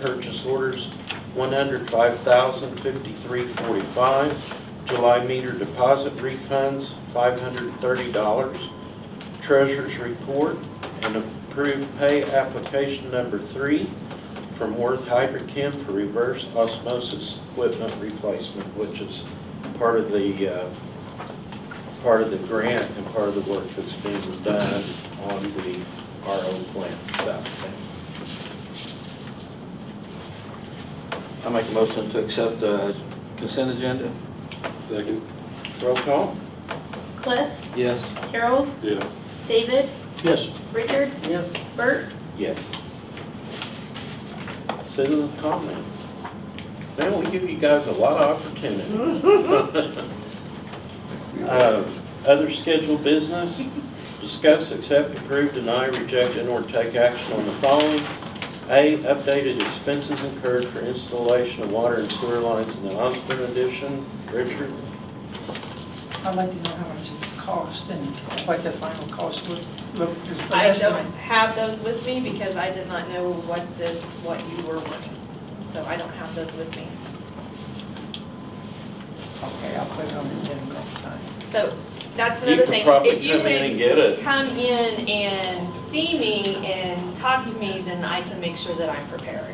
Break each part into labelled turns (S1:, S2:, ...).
S1: purchase orders 105,053.45, July meter deposit refunds $530, treasurer's report, and approved pay application number three from Worth Hydrochem for reverse osmosis equipment replacement, which is part of the, uh, part of the grant and part of the work that's being done on the RO plant south end.
S2: I make a motion to accept the consent agenda?
S3: Second?
S1: Roll call?
S4: Cliff,
S2: Yes.
S4: Harold,
S3: Yes.
S4: David,
S1: Yes.
S4: Richard,
S1: Yes.
S4: Bert,
S1: Yes. Citizen comment. Man, we give you guys a lot of opportunity. Uh, Other scheduled business, discuss, accept, approve, deny, reject, and/or take action on the following. A, updated expenses incurred for installation of water and sewer lines in the Osborne addition. Richard?
S5: I'd like to know how much it's cost and what the final cost would look, just an
S6: I
S5: estimate.
S6: don't have those with me because I did not know what this, what you were wanting. So I don't have those with me.
S5: Okay, I'll put it on the agenda next time.
S6: So that's
S1: You
S6: another
S1: could
S6: thing.
S1: probably
S6: If you
S1: come in
S6: would
S1: and get it.
S6: come in and see me and talk to me, then I can make sure that I'm prepared.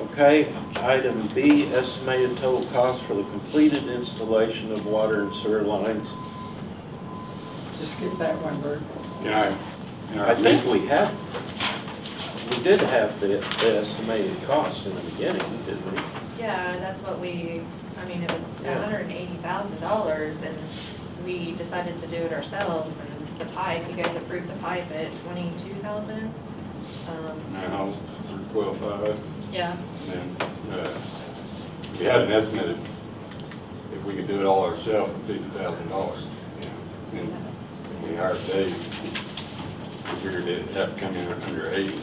S1: Okay, item B, estimated total cost for the completed installation of water and sewer lines.
S5: Just get that one, Bert.
S3: Yeah.
S1: I think we have, we did have the the estimated cost in the beginning, didn't we?
S6: Yeah, that's what we, I mean, it was
S1: Yeah.
S6: hundred and eighty thousand dollars and we decided to do it ourselves and the pipe, you guys approved the pipe at twenty-two thousand. Um,
S3: Now, twelve five,
S6: Yeah,
S3: and, uh, we had an estimate of if we could do it all ourselves, fifty thousand dollars. And we hired Dave, we figured it'd have to come in under eighty.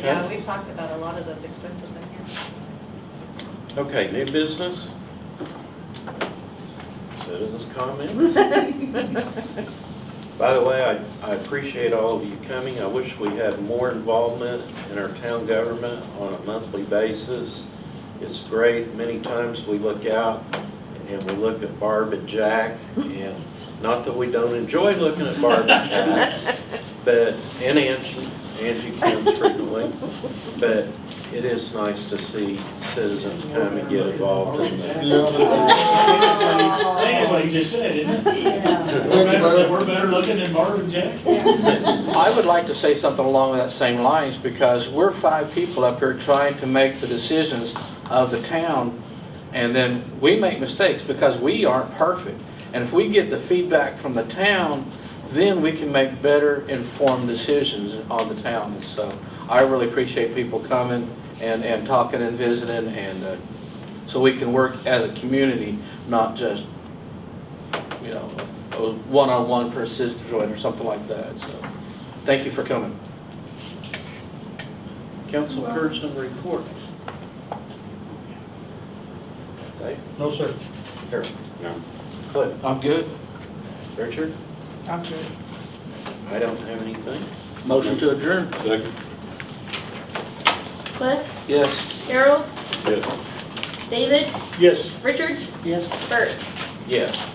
S6: yeah, we've talked about a lot of those expenses in here.
S1: Okay, new business? Citizens comments? By the way, I, I appreciate all of you coming. I wish we had more involvement in our town government on a monthly basis. It's great. Many times we look out and we look at Barb and Jack and not that we don't enjoy looking at Barb and Jack, but, and Angie, Angie comes frequently. But it is nice to see citizens come and get involved in that.
S7: I think that's what he just said, isn't it? We're better, we're better looking than Marvin and Jack.
S2: I would like to say something along that same lines, because we're five people up here trying to make the decisions of the town, and then we make mistakes because we aren't perfect. And if we get the feedback from the town, then we can make better informed decisions on the town. And so I really appreciate people coming and, and talking and visiting, and, uh, so we can work as a community, not just, you know, a one-on-one per situation or something like that, so. Thank you for coming.
S1: Councilperson reports. Dave?
S2: No, sir.
S1: Here,
S3: No.
S1: Cliff,
S2: I'm good.
S1: Richard?
S5: I'm good.
S1: I don't have anything.
S2: Motion to adjourn.
S3: Second,
S4: Cliff,
S2: Yes.
S4: Harold,
S3: yes.
S4: David,
S7: Yes.
S4: Richard,
S5: Yes.
S4: Bert.
S1: Yes.